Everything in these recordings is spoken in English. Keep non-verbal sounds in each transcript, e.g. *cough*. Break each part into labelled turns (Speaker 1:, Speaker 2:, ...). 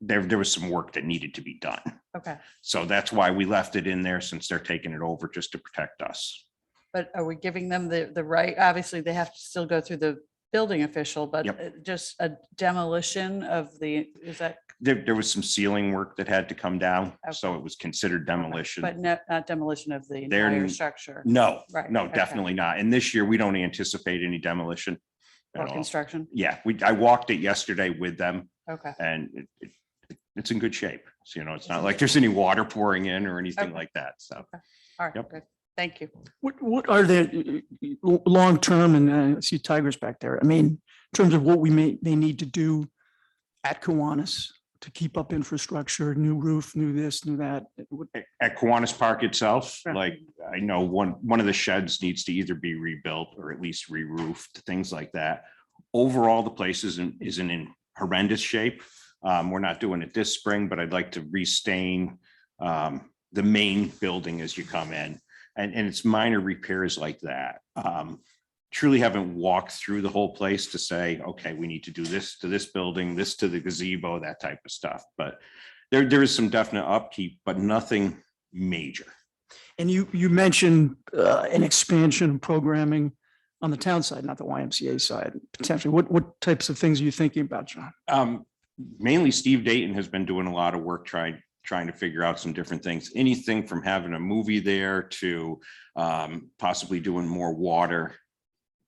Speaker 1: there, there was some work that needed to be done.
Speaker 2: Okay,
Speaker 1: So that's why we left it in there since they're taking it over just to protect us.
Speaker 2: but are we giving them the, the right? Obviously, they have to still go through the building official, but
Speaker 1: Yep.
Speaker 2: uh, just a demolition of the, is that,
Speaker 1: There, there was some ceiling work that had to come down, so
Speaker 2: Okay.
Speaker 1: it was considered
Speaker 2: but
Speaker 1: demolition.
Speaker 2: not, not demolition of the
Speaker 1: They're
Speaker 2: entire
Speaker 1: n-
Speaker 2: structure
Speaker 1: No,
Speaker 2: Right,
Speaker 1: no,
Speaker 2: okay.
Speaker 1: definitely not. And this year, we don't anticipate any demolition
Speaker 2: or
Speaker 1: at all.
Speaker 2: construction?
Speaker 1: Yeah, we, I walked it yesterday with them
Speaker 2: Okay,
Speaker 1: and it- it, it's in good shape. So, you know, it's not like there's any water pouring in or anything
Speaker 2: Okay.
Speaker 1: like that, so.
Speaker 2: all right,
Speaker 1: Yep.
Speaker 2: good. Thank you.
Speaker 3: What, what are the uh, uh, l- long-term, and uh, I see Tigers back there, I mean, in terms of what we may, may need to do at Kiwanis to keep up infrastructure, new roof, new this, new that? What-
Speaker 1: At- At Kiwanis Park itself,
Speaker 2: Right.
Speaker 1: like, I know one, one of the sheds needs to either be rebuilt or at least re-roofed, things like that. Overall, the place isn't, isn't in horrendous shape. Um, we're not doing it this spring, but I'd like to restain um, the main building as you come in. And, and it's minor repairs like that. Um, truly haven't walked through the whole place to say, okay, we need to do this to this building, this to the gazebo, that type of stuff. But there, there is some definite upkeep, but nothing major.
Speaker 3: And you, you mentioned uh, an expansion of programming on the town side, not the YMCA side, potentially. What, what types of things are you thinking about, John?
Speaker 1: Um, mainly Steve Dayton has been doing a lot of work trying, trying to figure out some different things, anything from having a movie there to um, possibly doing more water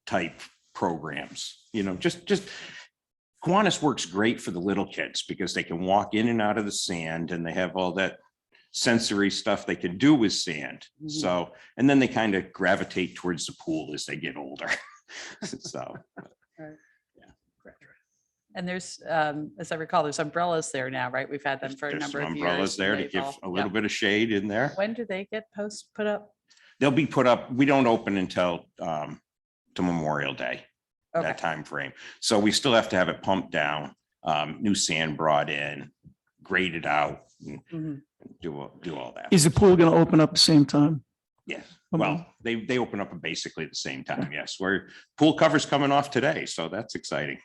Speaker 1: type programs, you know, just, just Kiwanis works great for the little kids because they can walk in and out of the sand and they have all that sensory stuff they can do with sand.
Speaker 2: Mhm.
Speaker 1: So, and then they kind of gravitate towards the pool as they get older. *laughs* So.
Speaker 2: And there's, um, as I recall, there's umbrellas there now, right? We've had them for a
Speaker 1: There's
Speaker 2: number
Speaker 1: some
Speaker 2: of years.
Speaker 1: umbrellas
Speaker 2: and
Speaker 1: there to
Speaker 2: they've
Speaker 1: give
Speaker 2: all-
Speaker 1: a
Speaker 2: yeah.
Speaker 1: little bit of shade in there.
Speaker 2: When do they get posts put up?
Speaker 1: They'll be put up, we don't open until um to Memorial Day,
Speaker 2: Okay,
Speaker 1: that time frame. So we still have to have it pumped down, um, new sand brought in, graded out, and
Speaker 2: mhm.
Speaker 1: do, all- do all that.
Speaker 3: Is Um, the pool going to open up at the same time?
Speaker 1: Yes,
Speaker 3: Okay.
Speaker 1: well, they, they open up at basically the same time, yes. Where pool cover's coming off today, so that's exciting.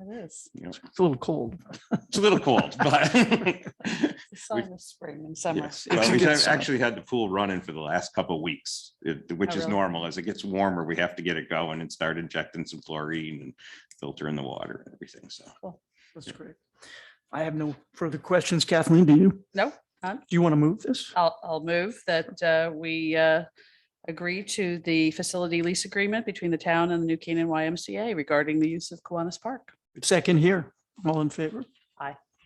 Speaker 2: It is.
Speaker 1: you know.
Speaker 3: It's a little cold.
Speaker 1: It's a little cold, but *laughs*
Speaker 2: It's the sign of spring and summer.
Speaker 1: Yes,
Speaker 3: It's
Speaker 1: well,
Speaker 3: a
Speaker 1: we've
Speaker 3: good
Speaker 1: had-
Speaker 3: sign.
Speaker 1: actually had the pool running for the last couple of weeks, it- which
Speaker 2: Oh,
Speaker 1: is
Speaker 2: really?
Speaker 1: normal. As it gets warmer, we have to get it going and start injecting some chlorine and filtering the water and everything, so.
Speaker 3: That's great. I have no further questions. Kathleen, do you?
Speaker 2: No, none.
Speaker 3: Do you want to move this?
Speaker 2: I'll, I'll move that uh, we uh, agree to the facility lease agreement between the town and the New Canaan YMCA regarding the use of Kiwanis Park.
Speaker 3: Second here. All in favor?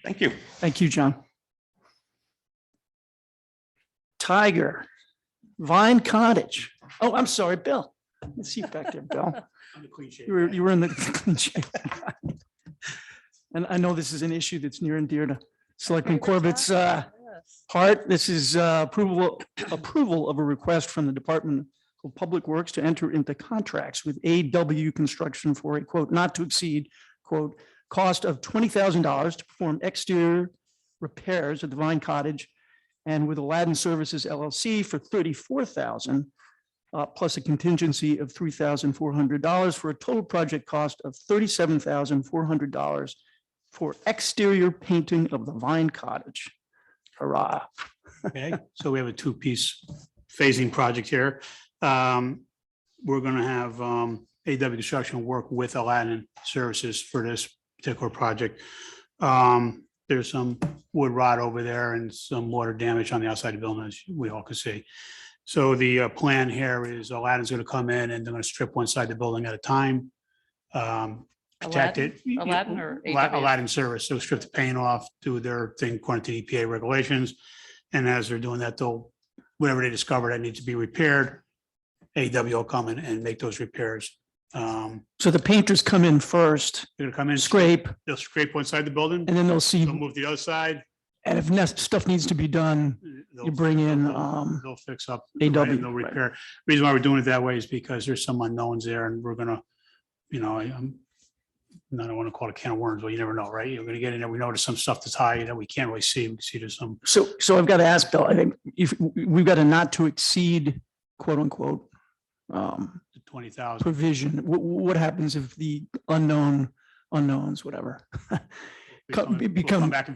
Speaker 1: Thank you.
Speaker 3: Thank you, John. Tiger, Vine Cottage. Oh, I'm sorry, Bill. Let's see you back there, Bill. You were, you were in the *laughs* clean shape. And I know this is an issue that's near and dear to Selectman Corbett's uh,
Speaker 2: Yes.
Speaker 3: heart. This is uh, approval, approval of a request from the Department of Public Works to enter into contracts with AW Construction for a quote, not to exceed, quote, cost of twenty thousand dollars to perform exterior repairs at the Vine Cottage and with Aladdin Services LLC for thirty-four thousand, uh, plus a contingency of three thousand four hundred dollars for a total project cost of thirty-seven thousand four hundred dollars for exterior painting of the Vine Cottage. Hurrah.
Speaker 4: Okay, so we have a two-piece phasing project here. Um, We're going to have um, AW Construction work with Aladdin Services for this particular project. Um, There's some wood rot over there and some water damage on the outside of the building, as we all can see. So the uh, plan here is Aladdin's going to come in and they're going to strip one side of the building at a time. um, Protect
Speaker 2: Aladdin-
Speaker 4: it. you know,
Speaker 2: Aladdin or
Speaker 4: Ala-
Speaker 2: AW?
Speaker 4: Aladdin Service, so strip the paint off, do their thing according to EPA regulations. And as they're doing that, they'll, whatever they discover that needs to be repaired, AW will come in and make those repairs. Um,
Speaker 3: So the painters come in first,
Speaker 4: They're gonna come in.
Speaker 3: scrape,
Speaker 4: They'll scrape one side of the building,
Speaker 3: and then they'll
Speaker 4: they'll
Speaker 3: see,
Speaker 4: move the other side.
Speaker 3: and if nes- stuff needs to be done,
Speaker 4: they'll-
Speaker 3: you bring in,
Speaker 4: they'll-
Speaker 3: um,
Speaker 4: They'll fix up.
Speaker 3: AW,
Speaker 4: They'll
Speaker 3: right.
Speaker 4: repair. Reason why we're doing it that way is because there's some unknowns there and we're gonna, you know, I- I'm. I don't want to call it a can of worms, but you never know, right? You're gonna get in there. We notice some stuff that's high that we can't really see. We can see there's some
Speaker 3: So, so I've got to ask Bill, I think if, we've got a not to exceed quote unquote um,
Speaker 4: twenty thousand.
Speaker 3: provision. What, what happens if the unknown unknowns, whatever? co- become-
Speaker 4: Back and